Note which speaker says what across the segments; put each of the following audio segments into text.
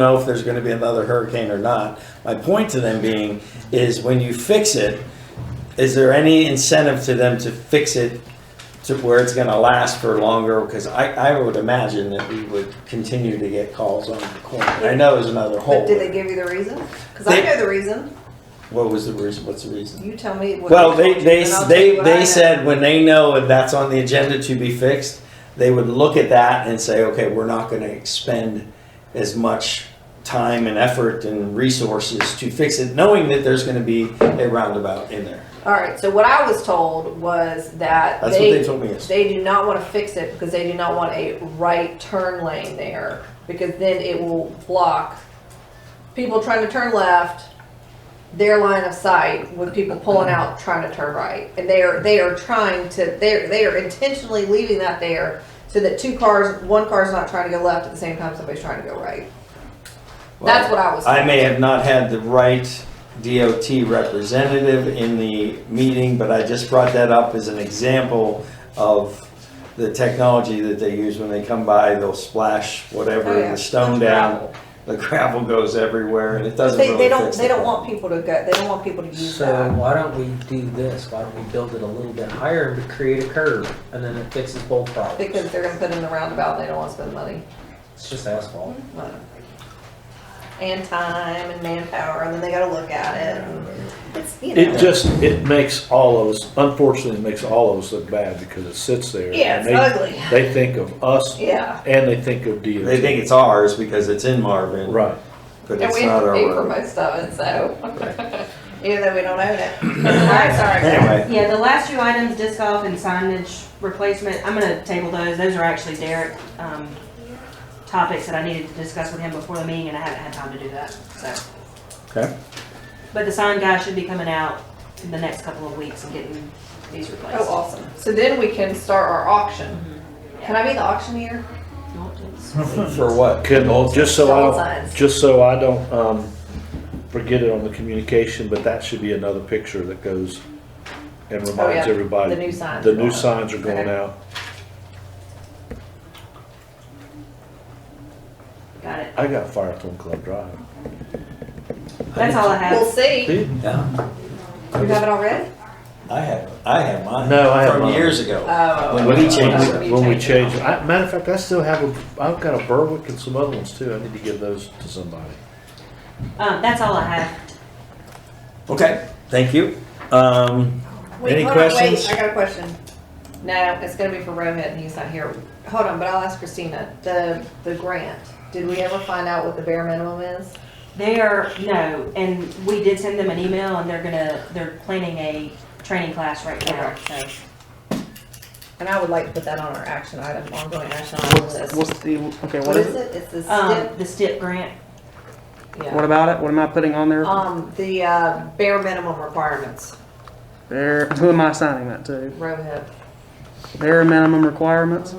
Speaker 1: know if there's gonna be another hurricane or not. My point to them being is when you fix it, is there any incentive to them to fix it to where it's gonna last for longer? Because I, I would imagine that we would continue to get calls on the corner. I know there's another
Speaker 2: But
Speaker 1: hole.
Speaker 2: did they give you the reason? Because I
Speaker 1: They-
Speaker 2: know the reason.
Speaker 1: What was the reason, what's the reason?
Speaker 2: You tell me what.
Speaker 1: Well,
Speaker 2: told
Speaker 1: they,
Speaker 2: you,
Speaker 1: they,
Speaker 2: and I'll tell you
Speaker 1: they,
Speaker 2: what I know.
Speaker 1: they said when they know if that's on the agenda to be fixed, they would look at that and say, okay, we're not gonna expend as much time and effort and resources to fix it, knowing that there's gonna be a roundabout in there.
Speaker 2: All right, so what I was told was that
Speaker 1: That's what
Speaker 2: they,
Speaker 1: they told me yesterday.
Speaker 2: they do not want to fix it because they do not want a right turn lane there. Because then it will block people trying to turn left, their line of sight with people pulling out trying to turn right. And they are, they are trying to, they're, they are intentionally leaving that there so that two cars, one car's not trying to go left at the same time somebody's trying to go right. That's what I was told.
Speaker 1: I may have not had the right DOT representative in the meeting, but I just brought that up as an example of the technology that they use when they come by, they'll splash
Speaker 2: Oh,
Speaker 1: whatever,
Speaker 2: yeah.
Speaker 1: the stone down. The gravel goes everywhere and it doesn't
Speaker 2: They,
Speaker 1: really
Speaker 2: they don't,
Speaker 1: fix
Speaker 2: they
Speaker 1: the
Speaker 2: don't
Speaker 1: problem.
Speaker 2: want people to go, they don't want people to use
Speaker 3: So
Speaker 2: that.
Speaker 3: why don't we do this? Why don't we build it a little bit higher and create a curve and then it fixes both problems?
Speaker 2: Because they're gonna put in the roundabout, and they don't wanna spend money.
Speaker 3: It's just asphalt.
Speaker 2: And time and manpower, and then they gotta look at it, and it's, you know.
Speaker 4: It just, it makes all of us, unfortunately, it makes all of us look bad because it sits there.
Speaker 2: Yeah, it's
Speaker 4: and they-
Speaker 2: ugly,
Speaker 4: They think of us
Speaker 2: yeah.
Speaker 4: and they think of DOT.
Speaker 1: They think it's ours because it's in Marvin,
Speaker 4: Right.
Speaker 1: but
Speaker 2: And
Speaker 1: it's
Speaker 2: we
Speaker 1: not
Speaker 2: have to
Speaker 1: our
Speaker 2: pay for
Speaker 1: road.
Speaker 2: most of it, so, even though we don't own it. I'm sorry.
Speaker 1: Anyway,
Speaker 5: Yeah, the last two items, disc golf and signage replacement, I'm gonna table those. Those are actually Derek, um, topics that I needed to discuss with him before the meeting and I haven't had time to do that, so.
Speaker 4: Okay.
Speaker 5: But the sign guy should be coming out in the next couple of weeks and getting these replaced.
Speaker 2: Oh, awesome. So then we can start our auction. Can I be the auctioneer?
Speaker 5: You want to?
Speaker 1: for what?
Speaker 4: Can, just so I
Speaker 2: Stop
Speaker 4: don't,
Speaker 2: signs.
Speaker 4: just so I don't, um, forget it on the communication, but that should be another picture that goes and reminds
Speaker 2: Oh, yeah,
Speaker 4: everybody.
Speaker 2: the new signs
Speaker 4: The
Speaker 2: are
Speaker 4: new
Speaker 2: going up.
Speaker 4: signs are going
Speaker 2: Okay.
Speaker 4: out.
Speaker 5: Got it.
Speaker 4: I got Firethorn Club Drive.
Speaker 5: That's all I
Speaker 2: We'll
Speaker 5: have.
Speaker 2: see.
Speaker 1: Yeah,
Speaker 2: You have it already?
Speaker 1: I have, I have mine.
Speaker 4: No, I have
Speaker 1: From
Speaker 4: mine.
Speaker 1: years ago.
Speaker 2: Oh.
Speaker 1: When we change it.
Speaker 4: When we change,
Speaker 2: it.
Speaker 4: I, matter of fact, I still have, a. have got a Berwick and some other ones too. I need to give those to somebody.
Speaker 5: Um, that's all I have.
Speaker 1: Okay, thank you. Um,
Speaker 2: Wait,
Speaker 1: Any
Speaker 2: hold on,
Speaker 1: questions?
Speaker 2: Wait, I got a question. No, it's gonna be for Rohit and he's not here. Hold on, but I'll ask Christina. The, the grant, did we ever find out what the bare minimum is?
Speaker 5: They are, no, and we did send them an email and they're gonna, they're planning a training class right now, so.
Speaker 2: And I would like to put that on our action item, ongoing action item list.
Speaker 6: What's the, okay,
Speaker 2: What is it? It's the
Speaker 5: Um,
Speaker 2: stip,
Speaker 5: the STIP grant,
Speaker 2: yeah.
Speaker 6: about it? What am I putting on there?
Speaker 2: Um, the, uh, bare minimum requirements,
Speaker 6: There, who am I signing that to?
Speaker 2: Rohit.
Speaker 6: Bare minimum requirements?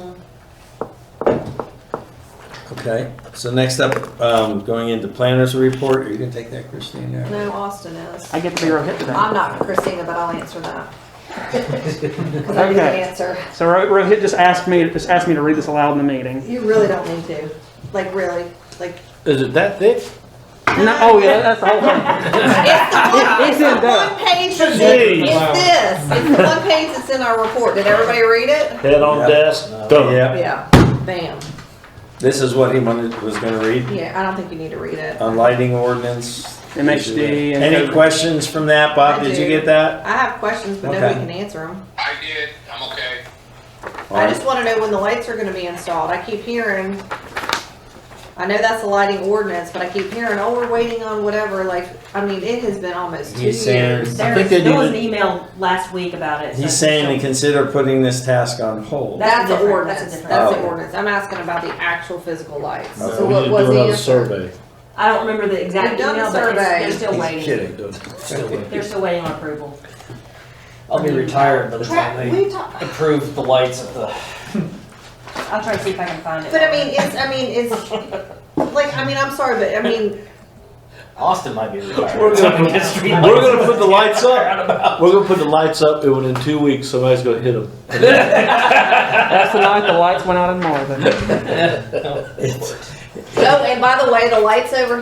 Speaker 1: okay, so next up, um, going into planners report, are you gonna take that, Christina?
Speaker 2: No, Austin is.
Speaker 6: I get to be Rohit
Speaker 2: I'm
Speaker 6: today.
Speaker 2: not Christina, but I'll answer that. Cause I didn't
Speaker 6: Okay.
Speaker 2: answer.
Speaker 6: So Ro- Rohit just asked me, just asked me to read this aloud in the meeting.
Speaker 2: You really don't need to, like, really, like,
Speaker 4: Is it that thick?
Speaker 6: No, oh yeah, that's the whole thing.
Speaker 2: It's the one,
Speaker 6: It's
Speaker 2: it's the one page, that's
Speaker 6: in there.
Speaker 4: Jeez.
Speaker 2: in- it's this, it's the one page that's in our report, did everybody read it?
Speaker 4: Head on
Speaker 1: Yeah.
Speaker 4: desk, done.
Speaker 1: Yeah,
Speaker 2: Yeah, bam,
Speaker 1: this is what he wanted, was gonna read,
Speaker 2: yeah, I don't think you need to read it.
Speaker 1: on lighting ordinance.
Speaker 6: MHD and
Speaker 1: Any
Speaker 6: code.
Speaker 1: questions from that, Bob?
Speaker 2: I
Speaker 1: Did
Speaker 2: do.
Speaker 1: you get that?
Speaker 2: I have questions, but nobody
Speaker 1: Okay.
Speaker 2: can answer them.
Speaker 7: I did, I'm okay.
Speaker 2: I just wanna know when the lights are gonna be installed, I keep hearing, I know that's a lighting ordinance, but I keep hearing, oh, we're waiting on whatever, like, I mean, it has been almost two
Speaker 1: He's saying-
Speaker 2: years.
Speaker 1: I
Speaker 5: there
Speaker 1: think
Speaker 5: was,
Speaker 1: they
Speaker 5: there was an
Speaker 1: need
Speaker 5: email last week about it. so-
Speaker 1: He's saying to consider putting this task on hold.
Speaker 2: That's
Speaker 5: That-
Speaker 2: the
Speaker 5: different- that's a
Speaker 2: ordinance,
Speaker 5: different-
Speaker 2: that's the
Speaker 1: Oh.
Speaker 2: ordinance, I'm asking about the actual physical lights,
Speaker 1: Okay.
Speaker 2: so
Speaker 4: We need
Speaker 2: what was
Speaker 4: to do
Speaker 2: the
Speaker 4: another
Speaker 2: answer?
Speaker 4: survey.
Speaker 5: I don't remember the exact
Speaker 2: We've done the
Speaker 5: email, but it's-
Speaker 2: survey.
Speaker 5: they're still waiting.
Speaker 1: Kidding.
Speaker 5: They're still waiting on approval.
Speaker 3: I'll be retired by the time
Speaker 2: Tra-
Speaker 3: they
Speaker 2: we talked,
Speaker 3: approve the lights at the
Speaker 5: I'll try to see if I can find it.
Speaker 2: But I mean, it's, I mean, it's, like, I mean, I'm sorry, but I mean,
Speaker 3: Austin might be retired.
Speaker 4: We're gonna-
Speaker 3: Get street
Speaker 4: We're
Speaker 3: lights.
Speaker 4: gonna put the lights up. We're gonna put the lights up, and in two weeks, somebody's gonna hit them.
Speaker 6: That's the night the lights went out in Marvin.
Speaker 2: Oh, and by the way, the lights over